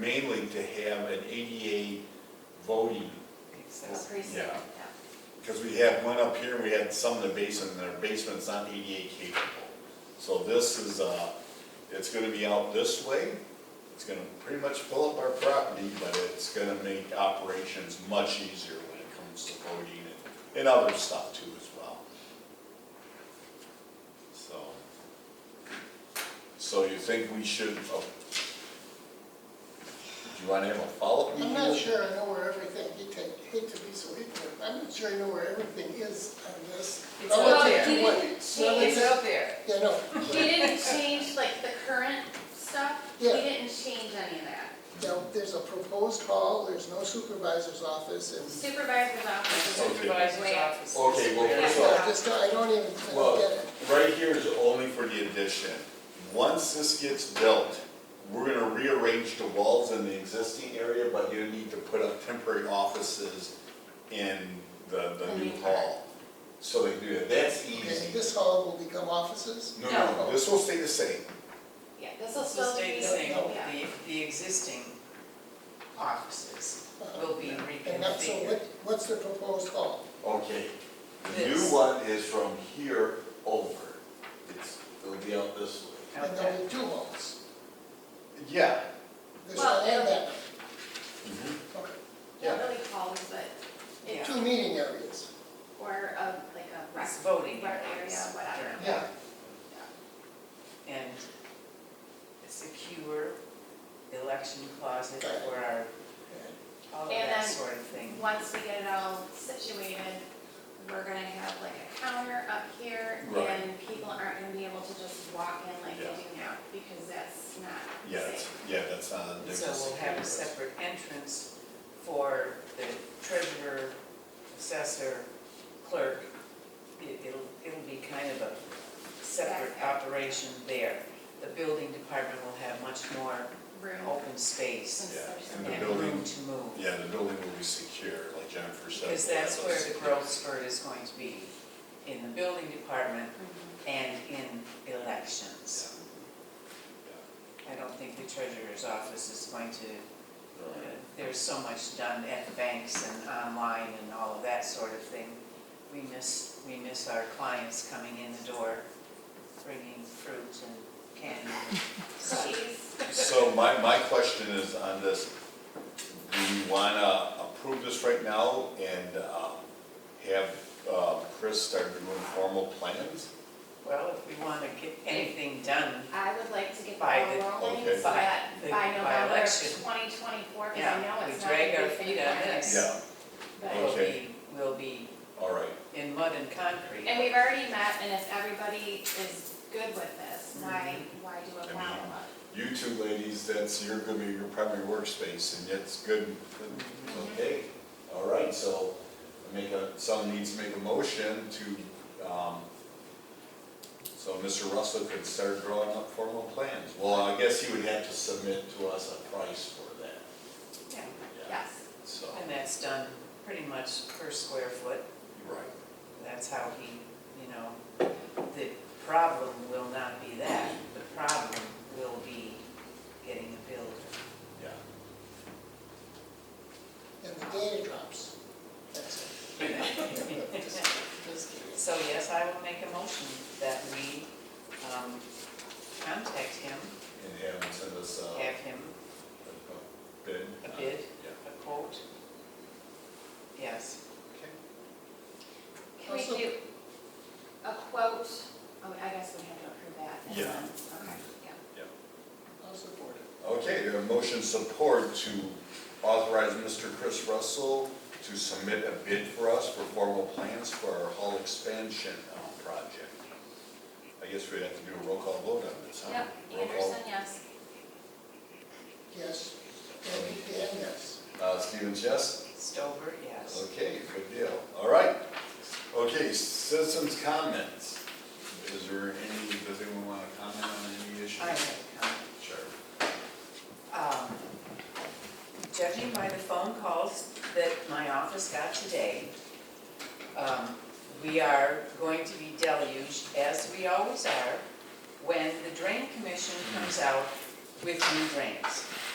mainly to have an ADA voting, A precinct, Yeah. yeah. because we had one up here, and we had some in the basement, and their basement's not ADA capable. So this is, uh, it's gonna be out this way, it's gonna pretty much fill up our property, but it's gonna make operations much easier when it comes to voting and, and other stuff too as well. So. So you think we should, oh. Do you wanna have a follow-up meeting? I'm not sure I know where everything, he take- hate to be so ignorant, I'm not sure I know where everything is on this. It's Relative out there. to what- She It's didn't out there. Yeah, no. change, she didn't change like the current stuff, we Yeah. didn't change any of that. Now, there's a proposed hall, there's no supervisor's office, and, Supervisor's office, Okay. Supervisor's office. Okay, well, Yeah. first of all, yeah, just, don't- I don't even, I Well, don't get it. right here is only for the addition. Once this gets built, we're gonna rearrange the walls in the existing area, but you need to put up temporary offices in the, the new hall. So they do that, that's Okay, easy. This hall will become offices? No, no, no, this will stay the same. yeah, this will This will still stay be, the same, yeah. oh, the, the existing offices Uh, will be And that's, so what, reconfigured. what's the proposed hall? Okay. The new This. one is from here over. It's, it'll be out this way. And there'll be two halls, Yeah. Mm-hmm. this one and that, one. Not really halls, but okay, it, two meeting areas. or a, like a rec, It's voting. rec area, whatever. Yeah, And a secure election closet for our, all of And that then- sort of thing. Once we get it all situated, we're gonna have like a counter up here, Right. and people aren't gonna be able to just walk in like they Yeah. do now, because that's not Yeah, safe. that's, yeah, that's not a So difference. we'll have a separate entrance for the treasurer, assessor, clerk. It- It'll, it'll be kind of a separate operation there. The building department will have much more Room. open space Yeah, and the and building, room to move. yeah, the building will be secure, like Jennifer said. Because we'll have that's those where the secure- growth spurt is going to be, in the building department and in elections. I don't think the treasurer's office is going to, uh, Yeah, right. there's so much done at the banks and online and all of that sort of thing. We miss, we miss our clients coming in the door, bringing fruit and candy. She's, So my, my question is on this, do you wanna approve this right now and, um, have, uh, Chris start doing formal plans? Well, if we want to get anything done, I would like to get the By the- ball rolling, Okay. so that By the- by by November election. twenty twenty-four, because I know yeah, we it's not gonna drag our be feet on finished. this. Yeah, But- We'll Okay. be, we'll be all right, in mud and concrete. And we've already met, and if everybody is good with this, why, why do I a mean, follow-up? you two ladies, that's, you're gonna be your primary workspace, and it's good, okay, all right, so, make a, someone needs to make a motion to, um, so Mr. Russell could start drawing up formal plans, well, I guess he would have to submit to us a price for that. Yeah. Yes. So, And that's done pretty much per square foot. right. That's how he, you know, the problem will not be that. The problem will be getting a builder. Yeah. and the data drops. That's it. Just kidding. So yes, I will make a motion that we um, contact him, And have him send us uh, have him a bid. a bid, Yeah. a quote. Yes. Can we Also- do a quote, oh, I guess we have to approve that. and Yeah. Uh, then- Okay, yeah. I'll support it. Okay, we have a motion support to authorize Mr. Chris Russell to submit a bid for us for formal plans for our hall expansion uh, project. I guess we'd have to do a roll call vote on this, huh? Yep, Roll call. Anderson, yes. Yes, and Dan, yes. Uh, Stevens, yes? Stover, yes. Okay, good deal. All right. Okay, citizens' comments. Is there any, does anyone want to comment on any issue? I have a comment. Sure. Um, Judging by the phone calls that my office got today, um, we are going to be deluged, as we always are, when the drain commission comes out with new drains.